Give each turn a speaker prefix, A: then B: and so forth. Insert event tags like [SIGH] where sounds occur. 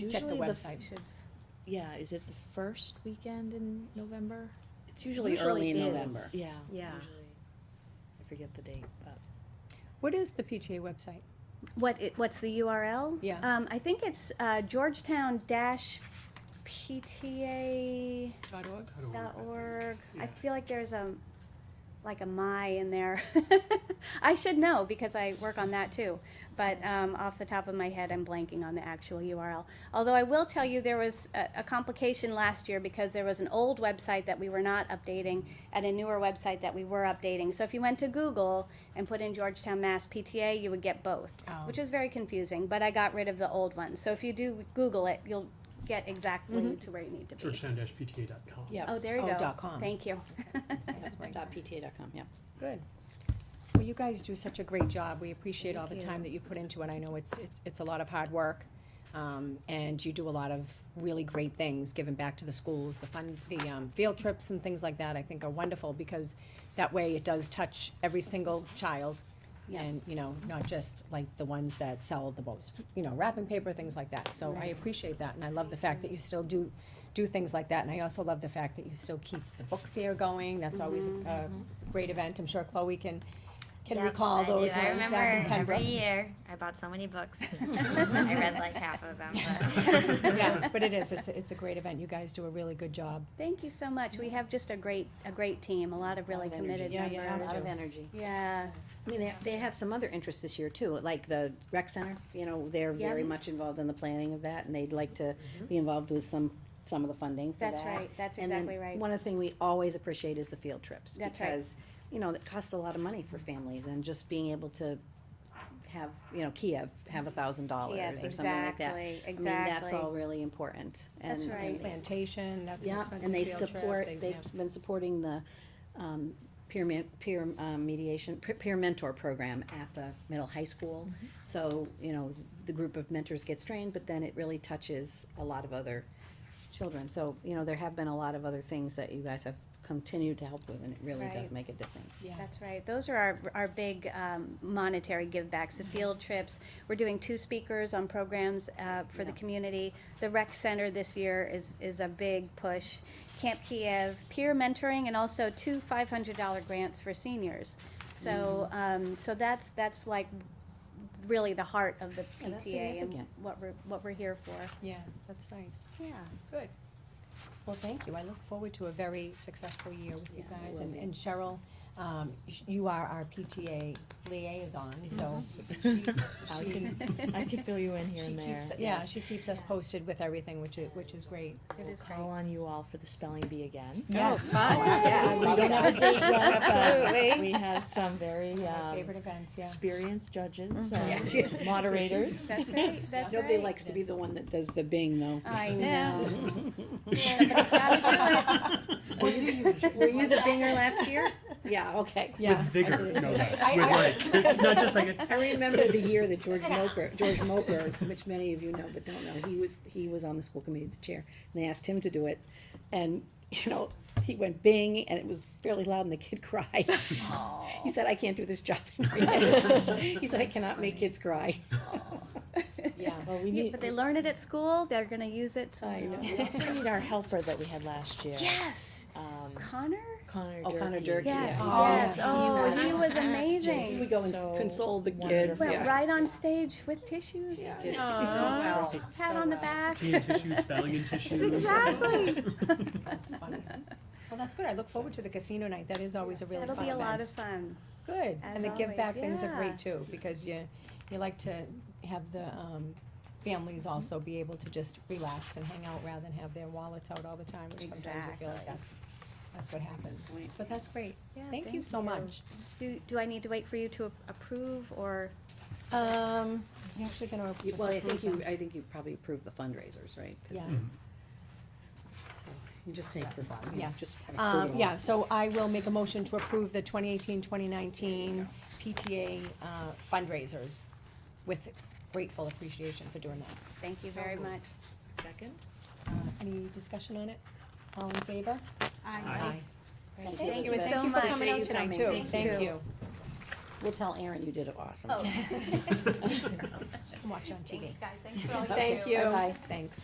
A: Check the
B: Usually
A: website.
B: should-
C: Yeah, is it the first weekend in November?
A: It's usually early in November.
B: is.
C: Yeah.
B: Yeah.
C: usually. I forget the date, but
D: What is the PTA website?
B: What it, what's the URL?
D: Yeah.
B: Um, I think it's uh, Georgetown dash PTA
D: Dot org?
B: dot org. I
E: Yeah.
B: feel like there's a like a my in there. [LAUGHS] I should know because I work on that too. But um, off the top of my head, I'm blanking on the actual URL. Although I will tell you, there was a, a complication last year because there was an old website that we were not updating and a newer website that we were updating. So if you went to Google and put in Georgetown Mass PTA, you would get both,
A: Oh.
D: Oh.
B: which is very confusing. But I got rid of the old one. So if you do Google it, you'll get exactly to where you need to be.
E: Georgetown-PTA.com.
A: Yeah.
B: Oh, there you
A: Oh,
B: go.
A: dot com.
B: Thank you.
D: That's my-
A: Dot PTA.com, yeah.
D: Good. Well, you guys do such a great job. We appreciate all the
B: Thank you.
D: time that you put into it. I know it's, it's, it's a lot of hard work. Um, and you do a lot of really great things, giving back to the schools, the fun, the, um, field trips and things like that, I think are wonderful because that way it does touch every single child.
A: Yeah.
D: And, you know, not just like the ones that sell the most, you know, wrapping paper, things like that. So I
B: Right.
D: appreciate that and I love the fact that you still do, do things like that. And I also love the fact that you still keep the book fair going. That's always
F: Mm-hmm.
D: a, a great event. I'm sure Chloe can, can
F: Yep,
D: recall
F: I do.
D: those
F: I
D: ones back in
F: remember
D: Pembroke.
F: Every year, I bought so many books.
D: [LAUGHS]
F: I read like half of them, but.
D: Yeah, but it is, it's, a- it's a great event. You guys do a really good job.
B: Thank you so much. We have just a great, a great team, a lot of really
A: Lot of energy.
B: committed
D: Yeah, yeah,
A: A lot of
B: members.
A: energy.
B: Yeah,
A: I mean, they, they have some other interests this year too, like the rec center, you know, they're
B: Yeah. Mm-hmm.
A: very much involved in the planning of that and they'd like to be involved with some, some of the funding for that.
B: that's right, that's
A: And then
B: exactly right.
A: One other thing we always appreciate is the field trips.
B: That's right.
A: Because, you know, it costs a lot of money for families and just being able to have, you know, Kiev have a thousand dollars
B: Yeah,
A: or something like that.
B: Exactly,
A: I mean, that's
B: exactly.
A: all really important.
B: That's
A: and-
B: right.
A: and it's-
D: Plantation, that's an
A: Yeah,
D: expensive
A: and they
D: field trip.
A: support,
D: They-
A: they've
D: yeah.
A: been supporting the, um, peer men, peer um, mediation, pe- peer mentor program at the middle high school. So, you know, the group of mentors gets trained, but then it really touches a lot of other children. So, you know, there have been a lot of other things that you guys have continued to help with, and it really does
B: Right.
A: make a difference.
D: Yeah.
B: That's right. Those are our, our big um, monetary givebacks, the field trips. We're doing two speakers on programs uh, for the
A: Yeah.
B: community. The rec center this year is, is a big push. Camp Kiev, peer mentoring, and also two five hundred dollar grants for seniors. So, um, so that's, that's like really the heart of the
A: Yeah, that's
B: PTA and
A: significant.
B: what we're, what we're here for.
D: Yeah, that's nice.
B: Yeah.
D: Good. Well, thank you. I look forward to a very successful year with you
A: Yeah, it
D: guys.
A: will
D: And
A: be.
D: and Cheryl, um, sh- you are our PTA liaison, so she,
A: I
D: she,
G: I could fill you in here
D: she
G: and there.
D: keeps, yeah,
G: yes.
D: she keeps us posted with everything, which is, which is great.
B: It
G: We'll
B: is
G: call on you all for the spelling
D: [LAUGHS]
G: bee again.
D: Yes.
A: Yeah,
G: [LAUGHS] We don't have a
D: [LAUGHS]
G: date yet, but
F: Absolutely.
G: we have some very
D: My
G: um,
D: favorite events, yeah.
G: experienced judges,
D: Yes.
B: [LAUGHS]
G: and moderators.
B: That's right, that's right.
A: Nobody likes to be the one that does the bing, though.
B: I
F: Yeah.
B: know. Somebody's [LAUGHS] gotta do it.
A: Were you, were you the binger last year? [LAUGHS] Yeah, okay.
D: Yeah. I
E: With vigor,
D: did it
E: no
D: too.
E: less,
D: I-
E: with
D: I-
B: [LAUGHS]
E: like, not just like a
A: I remember the year that George Moker, George Moker, which many of you know but don't know, he was, he was on the school committee as chair, and they asked him to do it, and, you know, he went bing, and it was fairly loud, and the kid [LAUGHS] cried. He said, I can't do this job. [LAUGHS]
B: [LAUGHS]
A: He said, I cannot make kids cry.
B: [LAUGHS]
G: Yeah, well, we
B: Yeah,
G: need,
B: but they learn it at school, they're gonna use it
A: I
B: somewhere
A: know.
B: else.
G: we also need our helper that we had last year.
B: Yes,
G: um,
B: Connor?
G: Connor
A: Oh,
G: Durkee.
A: Connor Durkee,
B: Yes,
A: yeah.
G: Oh,
B: yes,
G: he
B: oh,
G: was
B: he was
A: He
B: amazing.
A: would go
G: So
A: and console the kids,
G: wonderful.
B: Went
A: yeah.
B: right on stage with tissues,
A: Yeah.
B: pat on the back.
E: tea and tissue, spelling and tissue. [LAUGHS]
B: Exactly.
D: That's funny. [LAUGHS] Well, that's good. I look forward to the casino night. That is always a really
B: That'll
D: fun
B: be a lot
D: event.
B: of fun.
D: Good.
B: as
D: And the give
B: always,
D: back things are
B: yeah.
D: great too, because you, you like to have the, um, families
B: Mm-hmm.
D: also be able to just relax and hang out rather than have their wallets out all the time, which sometimes I feel like
B: Exactly.
D: that's, that's what happens.
A: Right.
D: But that's great.
B: Yeah,
D: Thank you so much.
B: Do, do I need to wait for you to a- approve or?
D: Um, you're actually gonna just
A: Well, I
D: approve
A: think you,
D: them.
A: I think you probably approved the fundraisers, right? 'Cause
D: Yeah.
E: Mm.
A: You just say, provide, you
D: Yeah.
A: just have approval.
D: Um, yeah, so I will make a motion to approve the 2018-2019 PTA uh, fundraisers with grateful appreciation for doing that.
B: Thank you very much.
G: Second?
D: Uh, Any discussion on it? All in favor?
E: Aye.
A: Thank you,
B: Thank you
A: Elizabeth.
B: so
D: Thank you for
B: much.
D: coming out tonight too. Thank you. Oh.
A: Oh,
D: [LAUGHS]
B: [LAUGHS]
A: We'll tell Aaron you did awesome.
G: can watch it on TV.
D: guys. Thanks for all you
B: Thank you.
G: Thanks.